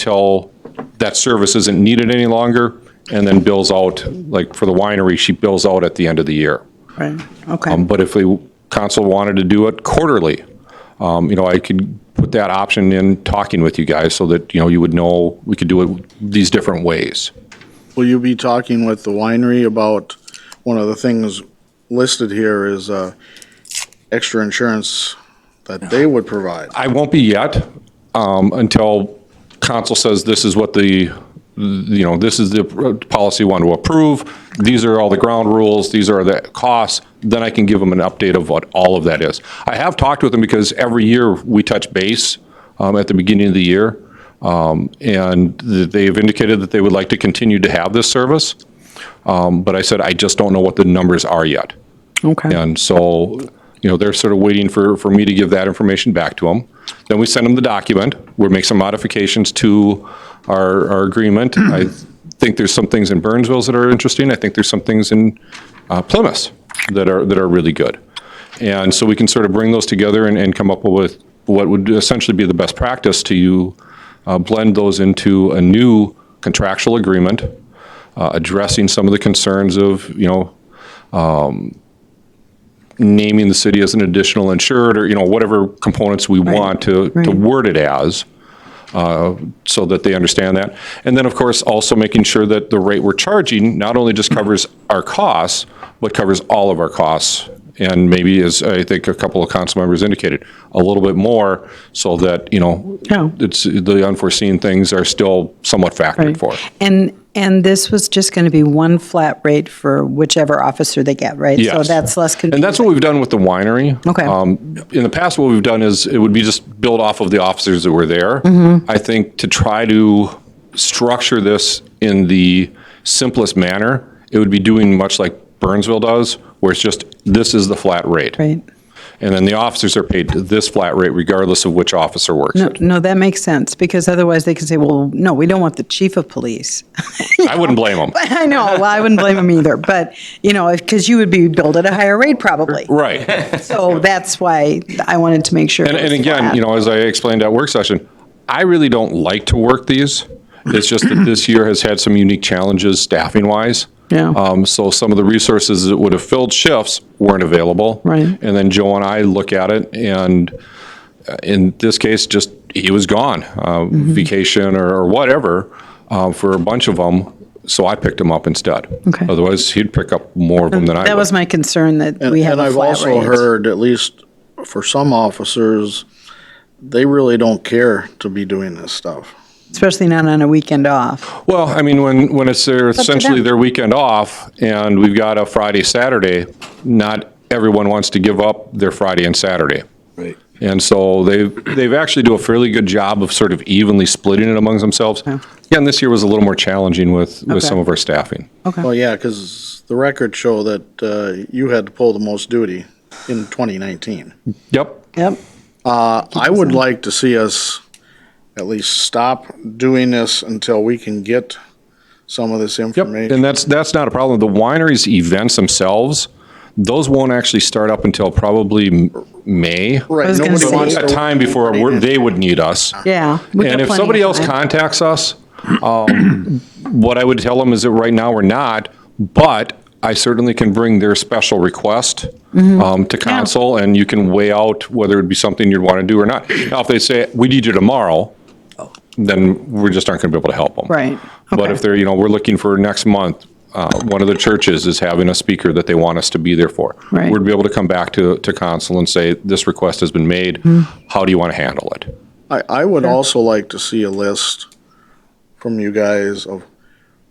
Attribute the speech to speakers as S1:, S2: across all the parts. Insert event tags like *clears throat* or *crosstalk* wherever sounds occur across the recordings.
S1: till that service isn't needed any longer, and then bills out, like for the winery, she bills out at the end of the year.
S2: Right, okay.
S1: Um, But if the council wanted to do it quarterly, um, you know, I could put that option in talking with you guys so that, you know, you would know, we could do it these different ways.
S3: Will you be talking with the winery about, one of the things listed here is uh, extra insurance that
S2: Oh.
S3: they would provide?
S1: I won't be yet um, until council says this is what the, you know, this is the policy one to approve. These are all the ground rules. These are the costs. Then I can give them an update of what all of that is. I have talked with them because every year we touch base um, at the beginning of the year. um, And th- they have indicated that they would like to continue to have this service. Um, But I said, I just don't know what the numbers are yet.
S2: Okay,
S1: And so, you know, they're sort of waiting for, for me to give that information back to them. Then we send them the document, we make some modifications to our, our agreement. I think there's some things in Burnsville's that are interesting, I think there's some things in uh, Plymouth that are, that are really good. And so we can sort of bring those together and, and come up with what would essentially be the best practice to you, uh, blend those into a new contractual agreement, uh, addressing some of the concerns of, you know, um, naming the city as an additional insured, or, you know, whatever components we want to, to
S2: right.
S1: word it as, uh, so that they understand that. And then, of course, also making sure that the rate we're charging not only just covers our costs, but covers all of our costs, and maybe, as I think a couple of council members indicated, a little bit more, so that, you know,
S2: Yeah.
S1: it's, the unforeseen things are still somewhat factored
S2: right.
S1: for.
S2: And, and this was just going to be one flat rate for whichever officer they get, right? So
S1: Yes.
S2: that's less confusing.
S1: And that's what we've done with the winery.
S2: Okay.
S1: Um, In the past, what we've done is, it would be just build off of the officers that were there.
S2: Mm-hmm.
S1: I think to try to structure this in the simplest manner, it would be doing much like Burnsville does, where it's just, this is the flat rate.
S2: Right.
S1: And then the officers are paid this flat rate regardless of which officer works
S2: No,
S1: it.
S2: no, that makes sense, because otherwise they can say, well, no, we don't want the chief of police. *laughs*
S1: I wouldn't blame them.
S2: I know, well, I wouldn't blame him either, but, you know, because you would be billed at a higher rate probably.
S1: Right.
S2: So that's why I wanted to make sure.
S1: And,
S2: it
S1: and
S2: was
S1: again,
S2: flat.
S1: you know, as I explained at work session, I really don't like to work these. It's just that this year has had some unique challenges staffing wise.
S2: Yeah.
S1: Um, so some of the resources that would have filled shifts weren't available.
S2: Right.
S1: And then Joe and I look at it and uh, in this case, just, he was gone, uh,
S2: Mm-hmm.
S1: vacation or, or whatever, uh, for a bunch of them. So I picked him up instead.
S2: Okay.
S1: Otherwise, he'd pick up more of them than I would.
S2: That was my concern, that
S3: And-
S2: we have
S3: And
S2: a
S3: I've
S2: flat
S3: also
S2: rate.
S3: heard, at least for some officers, they really don't care to be doing this stuff.
S2: Especially not on a weekend off.
S1: Well, I mean, when, when it's their, essentially
S2: them.
S1: their weekend off, and we've got a Friday, Saturday, not everyone wants to give up their Friday and Saturday.
S4: Right.
S1: And so they've, they've actually do a fairly good job of sort of evenly splitting it amongst themselves. Again, this year was a little more challenging with, with
S2: Okay.
S1: some of our staffing.
S3: Well, yeah, because the records show that uh, you had to pull the most duty in 2019.
S1: Yep.
S2: Yep.
S3: I would like to see us at least stop doing this until we can get some of this
S1: Yep,
S3: information.
S1: and that's, that's not a problem. The wineries events themselves, those won't actually start up until probably M- May.
S2: I was
S3: Right,
S2: gonna
S3: nobody
S2: say-
S3: wants
S1: A
S3: to.
S1: time before we're- they would need us.
S2: Yeah.
S1: And if somebody else contacts us, um, *coughs* what I would tell them is that right now we're not, but I certainly can bring their special request
S2: Mm-hmm.
S1: um, to council, and you can weigh out whether it'd be something you'd want to do or not. Now, if they say, we need you tomorrow, then we just aren't going to be able to help them.
S2: Right,
S1: But
S2: okay.
S1: if they're, you know, we're looking for next month, uh, one of the churches is having a speaker that they want us to be there for.
S2: Right.
S1: We'd be able to come back to, to council and say, this request has been made,
S2: Hmm.
S1: how do you want to handle it?
S3: I, I would also like to see a list from you guys of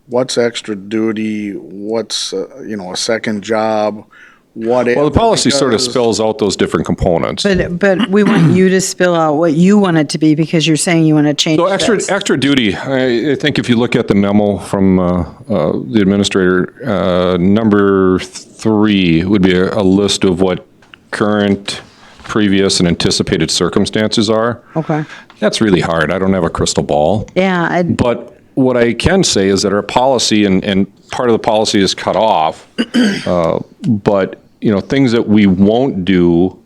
S3: what's extra duty, what's, uh, you know, a second job, what.
S1: Well, the policy sort of
S3: because-
S1: spells out those different components.
S2: But, but we want you to spill out what you want it to be because you're saying you want to change
S1: So extra,
S2: this.
S1: extra duty, I, I think if you look at the memo from, uh, uh, the administrator, uh, number three would be a, a list of what current, previous, and anticipated circumstances are.
S2: Okay.
S1: That's really hard. I don't have a crystal ball.
S2: Yeah, I'd-
S1: But what I can say is that our policy, and, and part of the policy is cut off, *clears throat* uh, but, you know, things that we won't do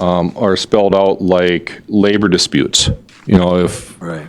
S1: um, are spelled out like labor disputes. You know, if,
S4: Right.